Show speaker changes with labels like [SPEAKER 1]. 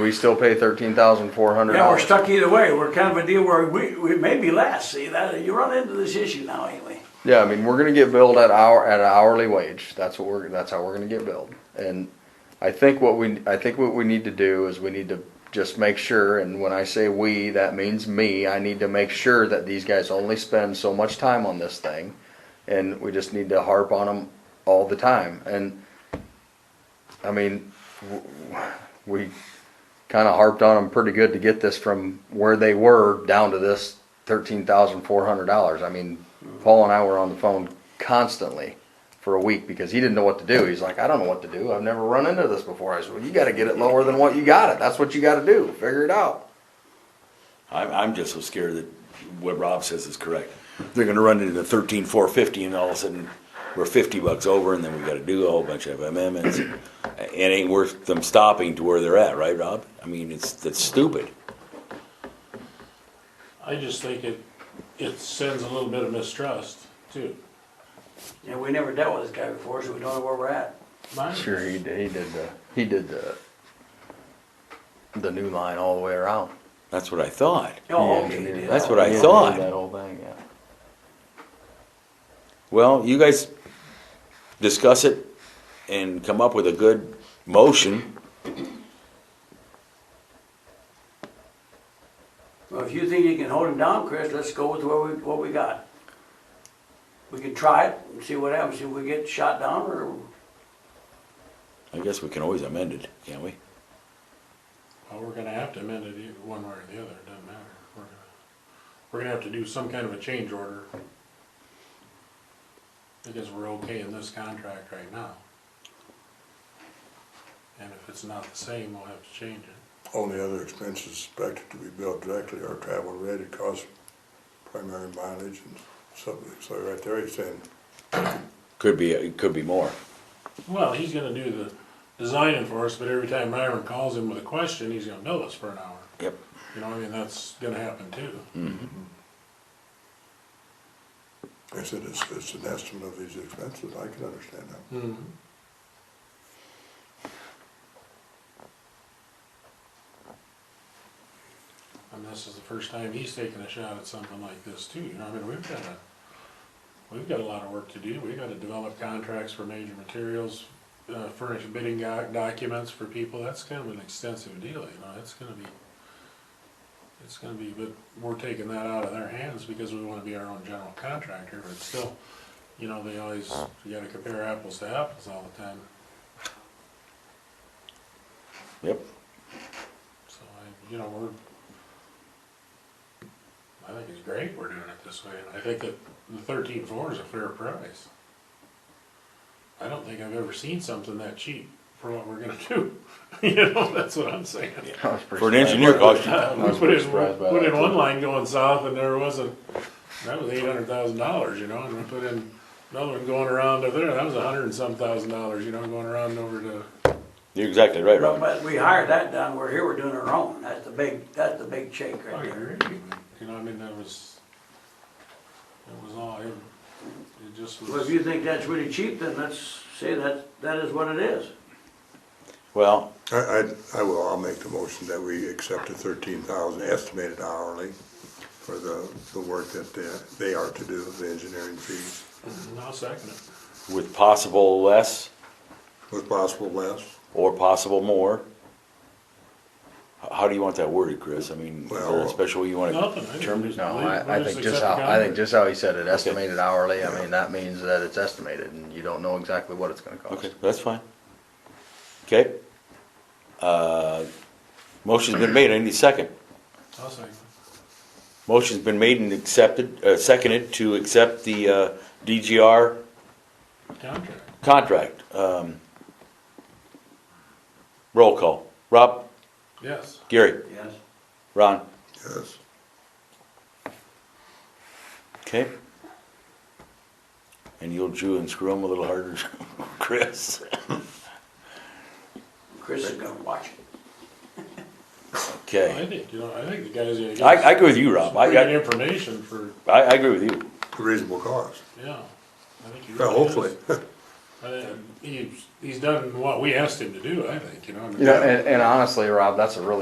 [SPEAKER 1] We still pay thirteen thousand four hundred
[SPEAKER 2] Yeah, we're
[SPEAKER 1] dollars.
[SPEAKER 2] stuck either way. We're kind of a deal where we, we may be less. See, that, you run into this issue now anyway.
[SPEAKER 1] Yeah, I mean, we're gonna get billed at hour, at an hourly wage. That's what we're, that's how we're gonna get billed. And I think what we, I think what we need to do is we need to just make sure, and when I say we, that means me, I need to make sure that these guys only spend so much time on this thing. And we just need to harp on them all the time. And, I mean, w- w- we kinda harped on them pretty good to get this from where they were down to this thirteen thousand four hundred dollars. I mean, Paul and I were on the phone constantly for a week because he didn't know what to do. He's like, I don't know what to do. I've never run into this before. I said, well, you gotta get it lower than what you got it. That's what you gotta do. Figure it out.
[SPEAKER 3] I'm, I'm just so scared that what Rob says is correct. They're gonna run into the thirteen, four fifty and all of a sudden we're fifty bucks over and then we gotta do a whole bunch of amendments. It ain't worth them stopping to where they're at, right, Rob? I mean, it's, that's stupid.
[SPEAKER 4] I just think it, it sends a little bit of mistrust too.
[SPEAKER 2] Yeah, we never dealt with this guy before, so we don't know where we're at.
[SPEAKER 4] Mine-
[SPEAKER 1] Sure, he did, he did the, he did the, the new line all the way around.
[SPEAKER 3] That's what I thought.
[SPEAKER 2] Oh,
[SPEAKER 1] He
[SPEAKER 2] okay,
[SPEAKER 1] engineered
[SPEAKER 2] yeah.
[SPEAKER 3] That's
[SPEAKER 1] that.
[SPEAKER 3] what I
[SPEAKER 1] He
[SPEAKER 3] thought.
[SPEAKER 1] engineered That whole thing, yeah.
[SPEAKER 3] Well, you guys discuss it and come up with a good motion.
[SPEAKER 2] Well, if you think you can hold him down, Chris, let's go with what we, what we got. We can try it and see what happens. See if we get shot down or,
[SPEAKER 3] I guess we can always amend it, can't we?
[SPEAKER 4] Well, we're gonna have to amend it either one way or the other, it doesn't matter. We're gonna, we're gonna have to do some kind of a change order. Because we're okay in this contract right now. And if it's not the same, we'll have to change it.
[SPEAKER 5] Only other expenses expected to be billed directly are travel related costs, primary mileage and something, so right there he's saying,
[SPEAKER 3] Could be, it could be more.
[SPEAKER 4] Well, he's gonna do the designing for us, but every time Myron calls him with a question, he's gonna bill us for an hour.
[SPEAKER 3] Yep.
[SPEAKER 4] You know, I mean, that's gonna happen too.
[SPEAKER 5] I said, it's, it's an estimate of these expenses, I can understand that.
[SPEAKER 4] Hmm. And this is the first time he's taken a shot at something like this too, you know, I mean, we've got a, we've got a lot of work to do, we've gotta develop contracts for major materials, uh, furnish bidding go- documents for people, that's kind of an extensive deal, you know, it's gonna be, it's gonna be, but we're taking that out of their hands because we wanna be our own general contractor, but still, you know, they always, you gotta compare apples to apples all the time,
[SPEAKER 3] Yep.
[SPEAKER 4] so I, you know, we're, I think it's great we're doing it this way, and I think that the thirteen four is a fair price. I don't think I've ever seen something that cheap for what we're gonna do, you know, that's what I'm saying.
[SPEAKER 1] I was pretty
[SPEAKER 3] For
[SPEAKER 1] surprised.
[SPEAKER 3] an engineer cost, you-
[SPEAKER 4] Uh,
[SPEAKER 1] I
[SPEAKER 4] We
[SPEAKER 1] was
[SPEAKER 4] put
[SPEAKER 1] pretty
[SPEAKER 4] in,
[SPEAKER 1] surprised by
[SPEAKER 4] put
[SPEAKER 1] that,
[SPEAKER 4] in
[SPEAKER 1] too.
[SPEAKER 4] one line going south and there wasn't, that was eight hundred thousand dollars, you know, and we put in another one going around over there, that was a hundred and some thousand dollars, you know, going around over to
[SPEAKER 3] you're exactly right,
[SPEAKER 2] but,
[SPEAKER 3] Rob.
[SPEAKER 2] but we hired that down. We're here, we're doing our own. That's the big, that's the big shake
[SPEAKER 4] I
[SPEAKER 2] right there.
[SPEAKER 4] agree. You know, I mean, that was, it was all, it, it just
[SPEAKER 2] Well, if
[SPEAKER 4] was,
[SPEAKER 2] you think that's really cheap, then let's say that, that is what it is.
[SPEAKER 3] Well,
[SPEAKER 5] I, I, I will, I'll make the motion that we accept the thirteen thousand estimated hourly for the, the work that they, they are to do, the engineering fees,
[SPEAKER 4] I'll second it.
[SPEAKER 3] with possible less.
[SPEAKER 5] with possible less,
[SPEAKER 3] or possible more. H- How do you want that worded, Chris? I mean, is there
[SPEAKER 5] Well-
[SPEAKER 3] a special way you want
[SPEAKER 4] Nothing.
[SPEAKER 3] to
[SPEAKER 4] I
[SPEAKER 3] term
[SPEAKER 4] just
[SPEAKER 3] it?
[SPEAKER 1] No,
[SPEAKER 4] believe-
[SPEAKER 1] I, I
[SPEAKER 4] we'll
[SPEAKER 1] think
[SPEAKER 4] accept
[SPEAKER 1] just
[SPEAKER 4] the
[SPEAKER 1] how, I think
[SPEAKER 4] contract.
[SPEAKER 1] just how he said it, estimated hourly, I mean, that means that it's estimated and you don't know exactly what it's gonna
[SPEAKER 3] Okay,
[SPEAKER 1] cost.
[SPEAKER 3] that's fine. Okay. Uh, Motion's been made, I need a second.
[SPEAKER 4] I'll second.
[SPEAKER 3] Motion's been made and accepted, uh, seconded to accept the uh, DGR
[SPEAKER 4] it. Contract.
[SPEAKER 3] contract. Um, Roll call. Rob,
[SPEAKER 4] Yes.
[SPEAKER 3] Gary,
[SPEAKER 2] Yes.
[SPEAKER 3] Ron.
[SPEAKER 5] yes.
[SPEAKER 3] Okay. And you'll chew and screw them a little harder, Chris.
[SPEAKER 2] Chris is gonna watch it.
[SPEAKER 3] Okay.
[SPEAKER 4] I think, you know, I think the guys. gotta get
[SPEAKER 3] I,
[SPEAKER 4] us
[SPEAKER 3] I agree with you,
[SPEAKER 4] some
[SPEAKER 3] Rob. I,
[SPEAKER 4] pretty good
[SPEAKER 3] I,
[SPEAKER 4] information for,
[SPEAKER 3] I agree with you.
[SPEAKER 5] Reasonable cost,
[SPEAKER 4] yeah. I think you
[SPEAKER 5] well,
[SPEAKER 4] really
[SPEAKER 5] hopefully,
[SPEAKER 4] is. I think he's, he's done what we asked him to do, I think, you know. I mean-
[SPEAKER 1] You know, and, and honestly, Rob, that's a really